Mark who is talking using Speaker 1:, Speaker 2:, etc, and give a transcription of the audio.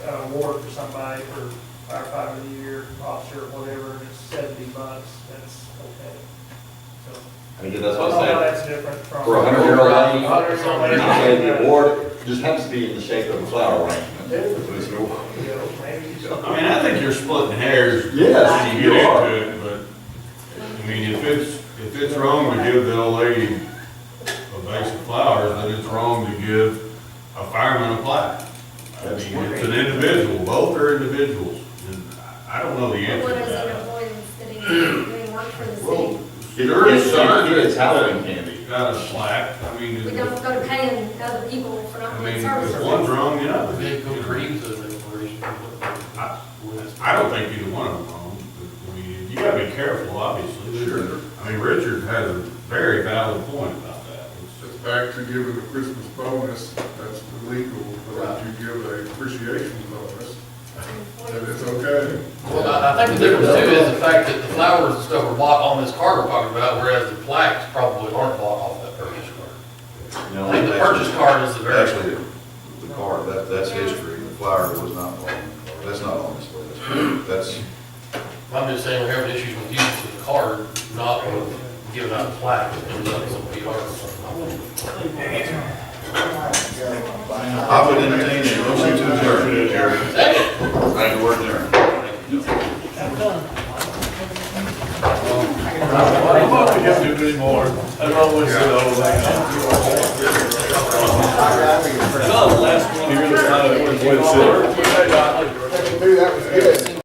Speaker 1: an award for somebody for firefighter of the year, officer, whatever, and it's seventy months, that's okay. So,
Speaker 2: I mean, that's
Speaker 1: I
Speaker 2: what
Speaker 1: don't know,
Speaker 2: I'm saying.
Speaker 1: that's different from.
Speaker 2: For a hundred year old lady, you
Speaker 1: Hundred year old lady.
Speaker 2: say the award just happens to be in the shape of a flower arrangement. It's an award.
Speaker 1: You know, maybe it's-
Speaker 3: I mean, I think you're splitting hairs.
Speaker 2: Yes,
Speaker 3: When you
Speaker 2: you
Speaker 3: get
Speaker 2: are.
Speaker 3: into it, but, I mean, if it's, if it's wrong to give the old lady a vase of flowers, then it's wrong to give a fireman a plaque. I
Speaker 2: That's
Speaker 3: mean, it's an individual, both are individuals, and I I don't know the answer
Speaker 4: What
Speaker 3: to
Speaker 4: is an
Speaker 3: that.
Speaker 4: employee that's sitting, doing work for the
Speaker 3: Well,
Speaker 4: city?
Speaker 3: sure,
Speaker 2: It's- it's-
Speaker 3: son,
Speaker 2: It's Halloween candy.
Speaker 3: got a plaque, I mean,
Speaker 4: We
Speaker 3: it-
Speaker 4: don't go to paying other people for not
Speaker 3: I
Speaker 4: doing
Speaker 3: mean,
Speaker 4: services.
Speaker 3: if one's wrong, the other.
Speaker 5: They go
Speaker 3: you know.
Speaker 5: creams as a corporation.
Speaker 3: I- I don't think either one of them own, but, I mean, you gotta be careful, obviously.
Speaker 6: Sure.
Speaker 3: I mean, Richard has a very valid point about that. It's-
Speaker 6: It's back to giving a Christmas bonus, that's illegal, but if you give a appreciation bonus, then it's okay.
Speaker 5: Well, I I think the difference too is the fact that the flowers and stuff are bought on this card we're talking about, whereas the plaques probably aren't bought off that purchase card.
Speaker 2: You know,
Speaker 5: I think the purchase card is the very,
Speaker 7: Actually, the car, that, that's history, the flyer was not on, that's not on this list. That's,
Speaker 5: I'm just saying we're having issues with using the card, not with giving out plaques. and letting somebody else or something.
Speaker 7: I would entertain a motion to adjourn, Jerry. Thank you, we're adjourned.
Speaker 3: I'm not gonna do anymore. I don't always say the whole thing. last one, you're the one that went silver.
Speaker 6: Hey, that was good.